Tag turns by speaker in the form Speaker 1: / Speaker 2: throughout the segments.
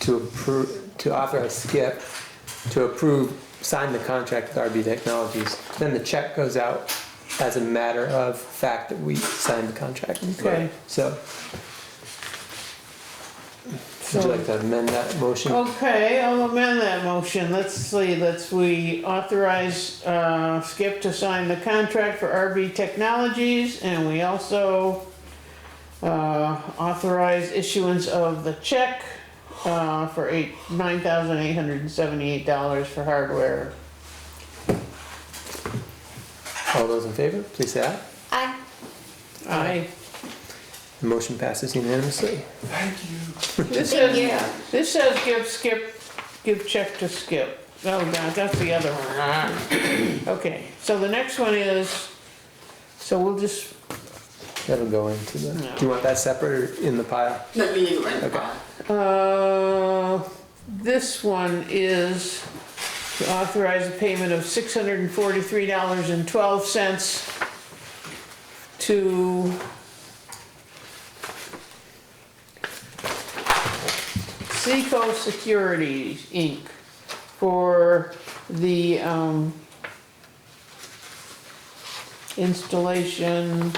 Speaker 1: to approve, to authorize Skip to approve, sign the contract with RB Technologies. Then the check goes out as a matter of fact that we signed the contract.
Speaker 2: Okay.
Speaker 1: So, would you like
Speaker 2: So, Oh.
Speaker 1: to amend that motion?
Speaker 2: okay, I'll amend that motion. Let's see, let's, we authorize, uh, Skip to sign the contract for RB Technologies and we also, uh, authorize issuance of the check, uh, for eight, nine thousand eight hundred and seventy-eight dollars for hardware.
Speaker 1: All those in favor, please say aye.
Speaker 3: Aye.
Speaker 2: Aye.
Speaker 1: The motion passes unanimously.
Speaker 2: This
Speaker 3: Thank you.
Speaker 2: says, this says give Skip, give check to Skip. Oh, no, that's the other one. Ah. Okay, so the next one is, so we'll just,
Speaker 1: That'll go into the, do you want that separate or in the pile?
Speaker 4: No, you need to rent the
Speaker 1: Okay.
Speaker 4: car.
Speaker 2: uh, this one is to authorize the payment of six hundred and forty-three dollars and twelve cents to Seco Securities, Inc. for the, um, installation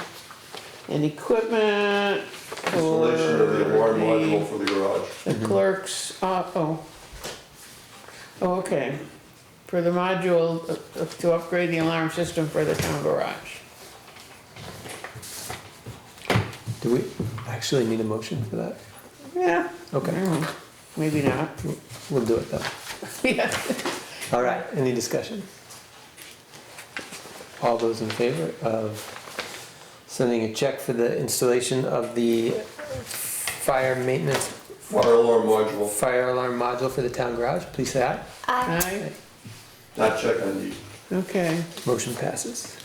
Speaker 2: and equipment for
Speaker 5: Installation of the alarm
Speaker 2: the-
Speaker 5: module for the garage.
Speaker 2: the
Speaker 1: Mm-hmm.
Speaker 2: clerk's, uh, oh. Oh, okay. For the module, uh, to upgrade the alarm system for the town garage.
Speaker 1: Do we actually need a motion for that?
Speaker 2: Yeah,
Speaker 1: Okay,
Speaker 2: mm, maybe not.
Speaker 1: we'll do it though.
Speaker 2: Yeah.
Speaker 1: All right, any discussion? All those in favor of sending a check for the installation of the fire maintenance,
Speaker 5: Fire alarm module,
Speaker 1: fire alarm module for the town garage, please say aye.
Speaker 3: Aye.
Speaker 2: Aye,
Speaker 5: not check on these.
Speaker 2: okay,
Speaker 1: Motion passes.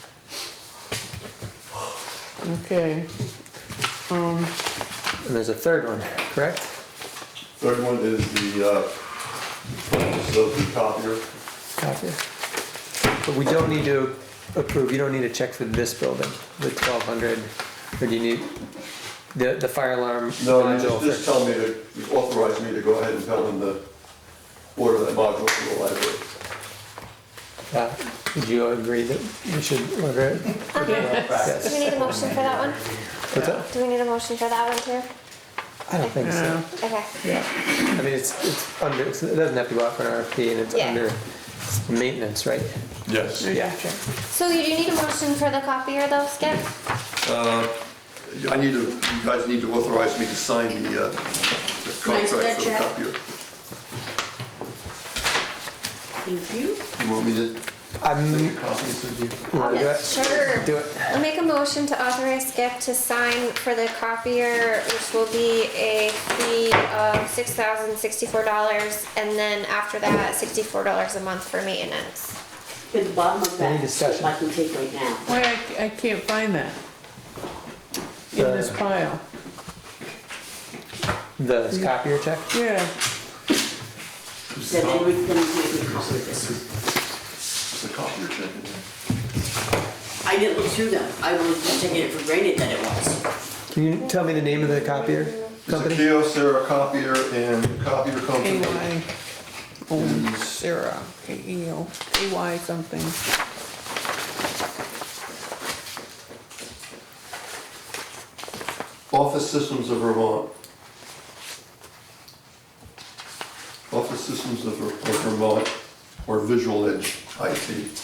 Speaker 2: okay. Um,
Speaker 1: And there's a third one, correct?
Speaker 5: Third one is the, uh, purchase of the copier.
Speaker 1: Copy. But we don't need to approve, you don't need a check for this building, the twelve hundred, or do you need the, the fire alarm
Speaker 5: No, you just,
Speaker 1: module?
Speaker 5: just
Speaker 1: for-
Speaker 5: tell me to, you authorize me to go ahead and tell them to order that module for the library.
Speaker 1: Uh, Would you agree that we should order it?
Speaker 3: Do
Speaker 1: Yes.
Speaker 3: we need a motion for that one?
Speaker 1: What's that?
Speaker 3: Do we need a motion for that one too?
Speaker 1: I don't think so.
Speaker 2: yeah,
Speaker 3: Okay.
Speaker 2: yeah,
Speaker 1: I mean, it's, it's under, it's- it doesn't have to go out for an RFP and it's
Speaker 3: Yeah.
Speaker 1: under maintenance, right?
Speaker 5: Yes.
Speaker 2: yeah, check.
Speaker 3: So you do need a motion for the copier though, Skip?
Speaker 5: I need to, you guys need to authorize me to sign the, uh, the contract for the
Speaker 4: check.
Speaker 5: copier.
Speaker 4: Thank you.
Speaker 5: You want me to
Speaker 1: I'm,
Speaker 5: copies of you?
Speaker 1: wanna do it?
Speaker 3: Sure.
Speaker 1: Do it.
Speaker 3: I'll make a motion to authorize Skip to sign for the copier, which will be a fee of six thousand sixty-four dollars, and then after that, sixty-four dollars a month for maintenance.
Speaker 4: At the bottom of
Speaker 1: Any
Speaker 4: that,
Speaker 1: discussion?
Speaker 4: I can take right now.
Speaker 2: Why, I, I can't find that in this
Speaker 1: The-
Speaker 2: pile,
Speaker 1: The copier check?
Speaker 2: yeah.
Speaker 4: You said they were gonna make me copy of this.
Speaker 5: The copier check.
Speaker 4: I didn't look through them. I was just taking it for granted that it was.
Speaker 1: Can you tell me the name of the copier
Speaker 5: It's a
Speaker 1: company?
Speaker 5: Kyocera copier and copier company.
Speaker 2: AY, oh, Sarah, E AEO, AY something.
Speaker 5: Office Systems of Vermont. Office Systems of Ver- of Vermont or Visual Edge IT.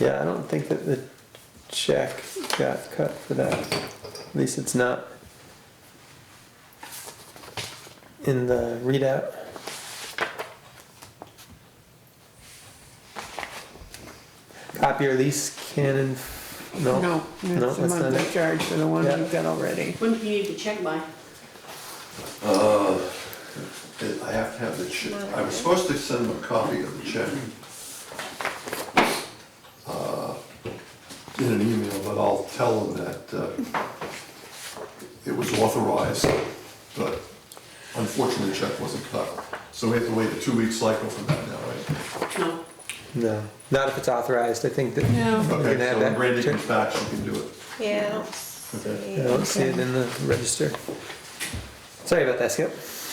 Speaker 1: Yeah, I don't think that the check got cut for that. At least it's not in the readout. Copier lease Canon, no.
Speaker 2: No,
Speaker 1: No,
Speaker 2: that's the
Speaker 1: that's not
Speaker 2: monthly
Speaker 1: it.
Speaker 2: charge for the one
Speaker 1: Yeah.
Speaker 2: we've got already.
Speaker 4: When do you need to check by?
Speaker 5: Uh, it- I have to have the check. I was supposed to send them a copy of the check. uh, In an email, but I'll tell them that uh, it was authorized, but unfortunately, the check wasn't cut. So we have to wait a two-week cycle for that now, right?
Speaker 4: No.
Speaker 1: No, not if it's authorized, I think that.
Speaker 2: No.
Speaker 1: you can
Speaker 5: Okay,
Speaker 1: have
Speaker 5: so when
Speaker 1: that
Speaker 5: Brandy
Speaker 1: check.
Speaker 5: comes back, she can do it.
Speaker 3: Yeah.
Speaker 5: Okay.
Speaker 1: I don't see it in the register. Sorry about that, Skip.